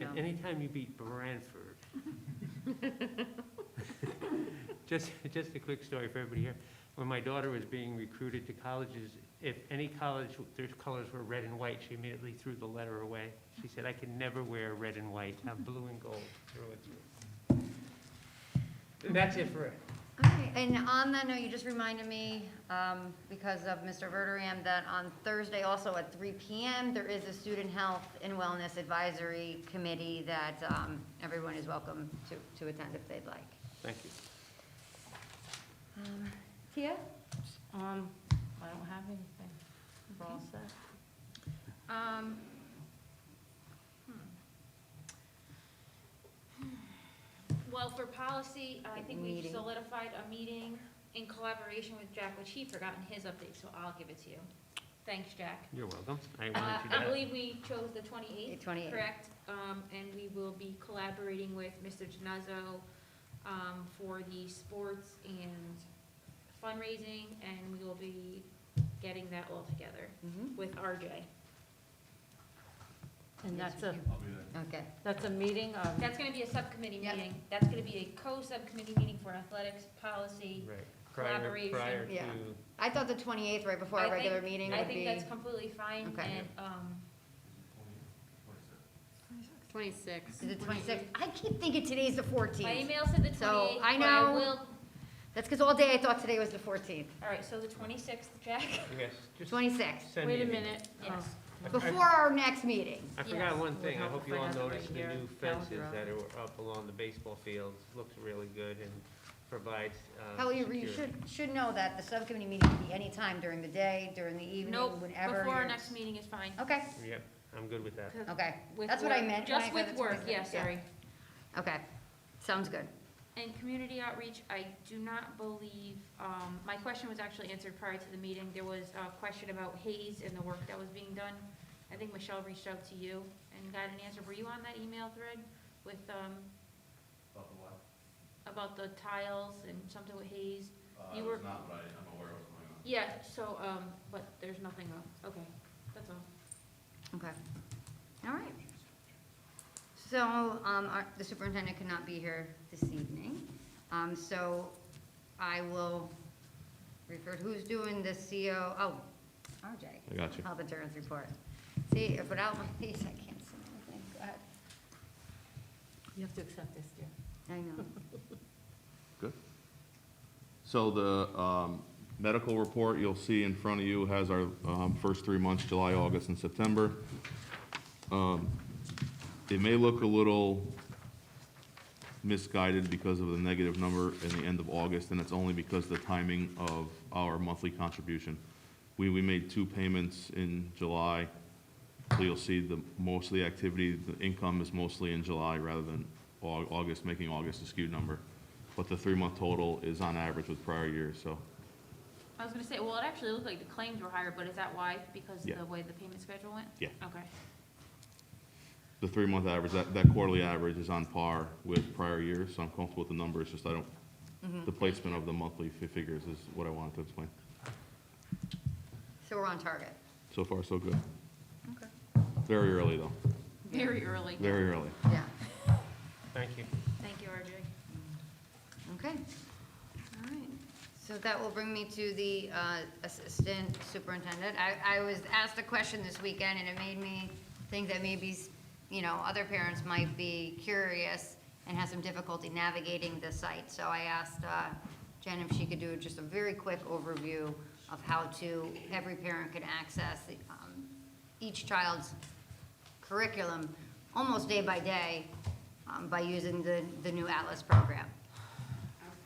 Yeah. anytime you beat Branford. Just, just a quick story for everybody here. When my daughter was being recruited to colleges, if any college, their colors were red and white, she immediately threw the letter away. She said, I can never wear red and white, I'm blue and gold through and through. And that's it for it. All right, and on that note, you just reminded me, um, because of Mr. Verderam, that on Thursday also at three PM, there is a Student Health and Wellness Advisory Committee that, um, everyone is welcome to, to attend if they'd like. Thank you. Um, Tia? Um, I don't have anything. We're all set. Um, hmm. Well, for policy, I Like think we've meeting. solidified a meeting in collaboration with Jack, which he forgot in his update, so I'll give it to you. Thanks, Jack. You're welcome. I Uh, wanted you to. I believe we chose the twenty-eighth, 28. correct? Um, and we will be collaborating with Mr. Genazzo, um, for the sports and fundraising, and we will be getting that all together Mm-hmm. Mhm. with RJ. And Yes, that's a, we do. Okay, that's a meeting of, That's gonna be a subcommittee Yep. meeting. That's gonna be a co-subcommittee meeting for athletics policy. Right. Prior, Collaboration. prior to, Yeah. I thought the twenty-eighth, right before I our think- regular meeting I would think be. that's completely fine Okay. and, um, Is it twenty-sixth? I keep thinking today's the my fourteenth. email said the So, twenty-eighth, I but I know- will, That's because all day I thought today was the fourteenth. all right, so the twenty-sixth, Jack. yes, just Twenty-sixth, send me. wait a an email. minute. Oh, Yes. I- I- before our next meeting. I forgot one Yes. thing, I hope you all Would help if I got the noticed the right new here. fences Calendar that are up along the baseball fields, looks really good and provides, uh. However, you security. should, should know that the subcommittee meeting can be anytime during the day, during the evening, Nope, whenever. before our you're- next meeting is fine. Okay, Yep, I'm good with that. okay, With That's what I work- meant when I Just said with the work, 26th, yeah, yeah. sorry. okay, sounds good. And community outreach, I do not believe, um, my question was actually answered prior to the meeting. There was a question about Hayes and the work that was being done. I think Michelle reached out to you and got an answer. Were you on that email thread with, um, About the what? about the tiles and something with Hayes? Uh, You it were- was not, but I- I'm aware of what's going on. Yeah, so, um, but there's nothing else. Okay, that's all. Okay, all right. So, um, our, the superintendent could not be here this evening, um, so I will refer, who's doing the CO, oh, RJ. I got you. Health insurance report. See, if without one of these, I can't see anything, go ahead. You have to accept this, dear. I know. Good. So the um, medical report you'll see in front of you has our um, first three months, July, August, and September. Um, It may look a little misguided because of the negative number in the end of August, and it's only because the timing of our monthly contribution. We, we made two payments in July, so you'll see the, most of the activity, the income is mostly in July rather than Au- August, making August a skewed number. But the three-month total is on average with prior years, so, I was gonna say, well, it actually looked like the claims were higher, but is that why? Because Yeah. the way the payment schedule went? yeah. Okay. The three-month average, that, that quarterly average is on par with prior years, so I'm comfortable with the numbers, just I don't, the placement of the monthly fi- figures is what I wanted to explain. So we're on target. So far, so good. Okay. Very early, though, Very early. very early. Yeah, Thank you. Thank you, RJ. okay. All right. So that will bring me to the uh, Assistant Superintendent. I, I was asked a question this weekend, and it made me think that maybe, you know, other parents might be curious and have some difficulty navigating the site. So I asked uh, Jen if she could do just a very quick overview of how to, every parent could access the, um, each child's curriculum almost day by day um, by using the, the new Atlas program.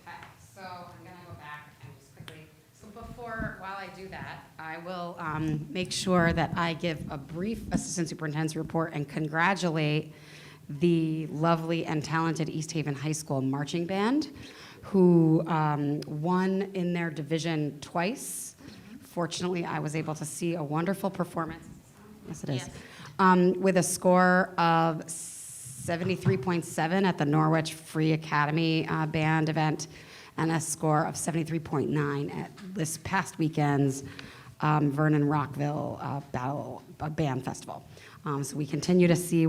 Okay, so I'm gonna go back and just quickly, so before, while I do that, I will um, make sure that I give a brief Assistant Superintendent's report and congratulate the lovely and talented East Haven High School marching band, who um, won in their division twice. Fortunately, I was able to see a wonderful performance. Yes, it is. Yes. Um, with a score of 73.7 at the Norwich Free Academy uh, Band event and a score of 73.9 at this past weekend's um, Vernon Rockville uh, Battle uh, Band Festival. Um, so we continue to see